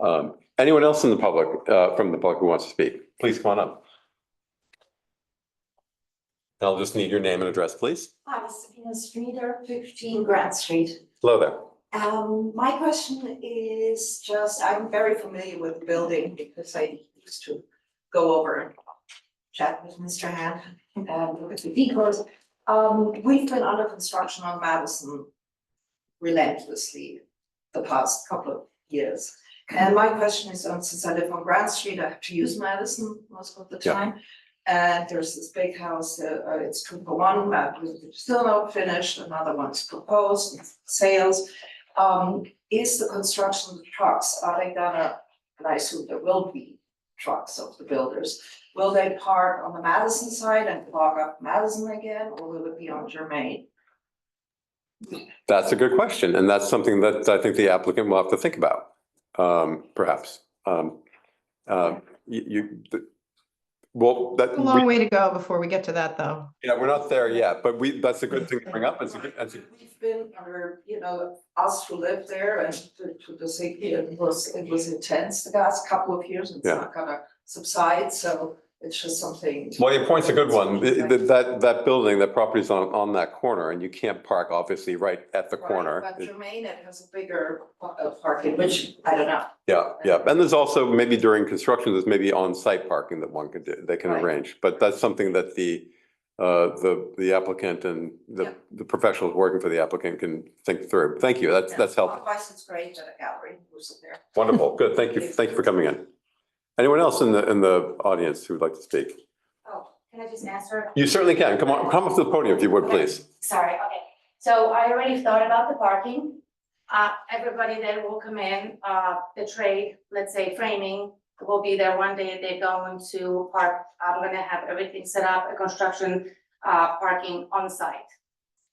Um, anyone else in the public, uh, from the public who wants to speak, please come on up. I'll just need your name and address, please. Hi, Sabina Streeter, fifteen Grant Street. Hello there. Um, my question is just, I'm very familiar with the building because I used to go over and chat with Mr. Hand and look at the decos. Um, we've been under construction on Madison relentlessly the past couple of years. And my question is, um, since I live on Grant Street, I have to use Madison most of the Yeah. time. And there's this big house, uh, uh, it's two for one, uh, it's still not finished, another one's proposed, it's sales. Um, is the construction of the trucks, are they gonna, and I assume there will be trucks of the builders. Will they park on the Madison side and clog up Madison again, or will it be on Germain? That's a good question, and that's something that I think the applicant will have to think about, um, perhaps. Um, um, you, you, the- well, that, A long we- way to go before we get to that, though. yeah, we're not there yet, but we, that's a good thing to bring up. It's a good, it's a- We've been under, you know, us who live there and to to the city, it was, it was intense the last couple of years and it's Yeah. not gonna subside, so it's just something. Well, your point's a good one. Th- th- That, that building, that property's on, on that corner and you can't park obviously right at the Right, corner. But Germain, it has a bigger pa- uh, parking, which I don't know. Yeah, yeah. And there's also maybe during construction, there's maybe on-site parking that one could, do- they can Right. arrange. But that's something that the, uh, the, the applicant and Yeah. the, the professionals working for the applicant can think through. Thank you. That's, that's helpful. Otherwise, it's great that a gallery was there. Wonderful. Good. Thank you. Thank you for coming in. Anyone else in the, in the audience who would like to speak? Oh, can I just answer? You certainly can. Come on, come up to the podium if you would, Okay. please. Sorry, okay. So I already thought about the parking. Uh, everybody that will come in, uh, the trade, let's say framing, will be there one day. They're going to park. I'm gonna have everything set up, a construction, uh, parking on site.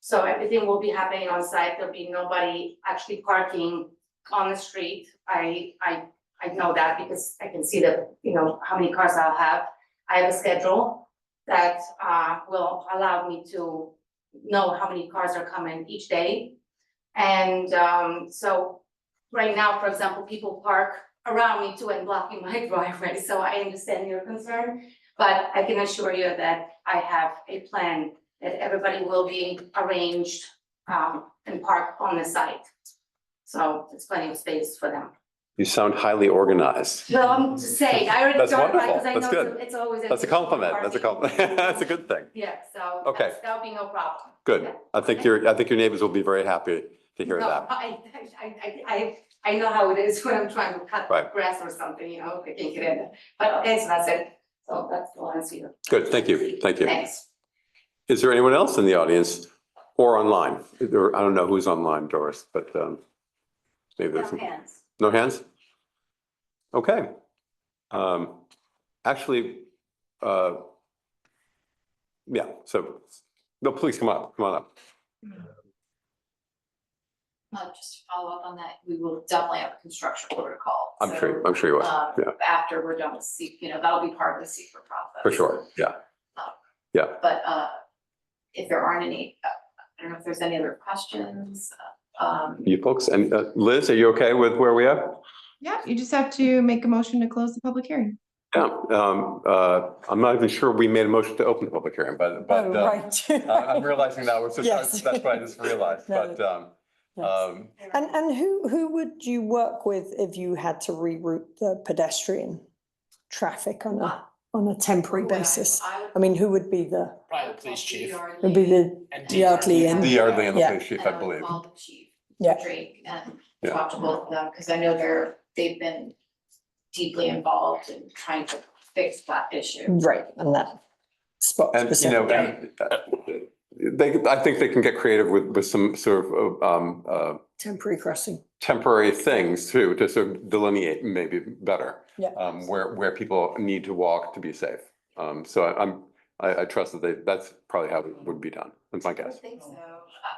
So everything will be happening on site. There'll be nobody actually parking on the street. I, I, I know that because I can see the, you know, how many cars I'll have. I have a schedule that, uh, will allow me to know how many cars are coming each day. And um, so right now, for example, people park around me too and blocking my driveway, so I understand your concern. But I can assure you that I have a plan that everybody will be arranged um, and parked on the site. So it's plenty of space for them. You sound highly organized. Well, I'm just saying, I already That's started, wonderful. because I That's know good. it's always. an That's a issue with compliment. That's a compliment. parking. That's a good thing. Yeah, so Okay. that's- that'll be no problem. Good. Yeah. I think your, I think your neighbors will be very happy to hear No, that. I, I, I, I, I know how it is when I'm trying to cut Right. grass or something, you know, I can't get in. But okay, so that's it. So that's the answer. you. Good, thank you, thank you. Thanks. Is there anyone else in the audience or online? There- I don't know who's online, Doris, but um, maybe there's, hands. no hands? Okay. Um, Actually, uh, yeah, so, no, please come up, come on up. Uh, just to follow up on that, we will definitely have a construction protocol. I'm So, sure, I'm sure you uh, will, um, yeah. After we're done with secret, you know, that'll be part of the secret process. for sure, yeah. But, uh, if there aren't any, uh, I don't know if there's any other questions, uh, um, You folks, and uh, Liz, are you okay with where we are? Yeah, you just have to make a motion to close the public hearing. Yeah, um, uh, I'm not even sure we made a motion to open the public hearing, but, but. Oh, uh, right. I- I'm realizing now, it's Yes. just, that's what I just realized, No, but, um, Yes. um, And, and who, who would you work with if you had to reroute the pedestrian traffic on a, on a temporary basis? I I would. mean, who would be the, Private police chief. would be the, And Yardley and- the Yardley and the Yeah. police chief, I believe. Call the uh, chief. Yeah. Drake and Yeah. talk to both of them, because I know they're, they've been deeply involved in trying to fix that issue. right, and that spot And, you know, specifically? and, uh, they, I think they can get creative with, with some sort of, uh, um, uh, Temporary crossing, temporary things too, to sort of delineate maybe better. Yeah. Um, where, where people need to walk to be safe. Um, so I- I'm, I, I trust that they, that's probably how it would be done, that's my I guess, think so.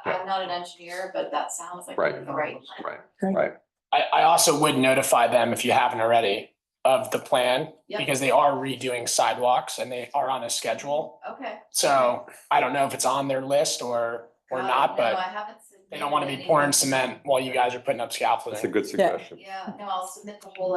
I, I'm not an engineer, but that sounds like Right. the right plan. right? I, I also would notify them if you haven't already of the plan Yep. because they are redoing sidewalks and they are on a schedule. Okay. So I don't know if it's on their list or, Got or it. not, No, I but haven't they don't want to submitted be any. pouring cement while you guys are putting up That's a scaffolding. good suggestion. Yeah, no, I'll submit the whole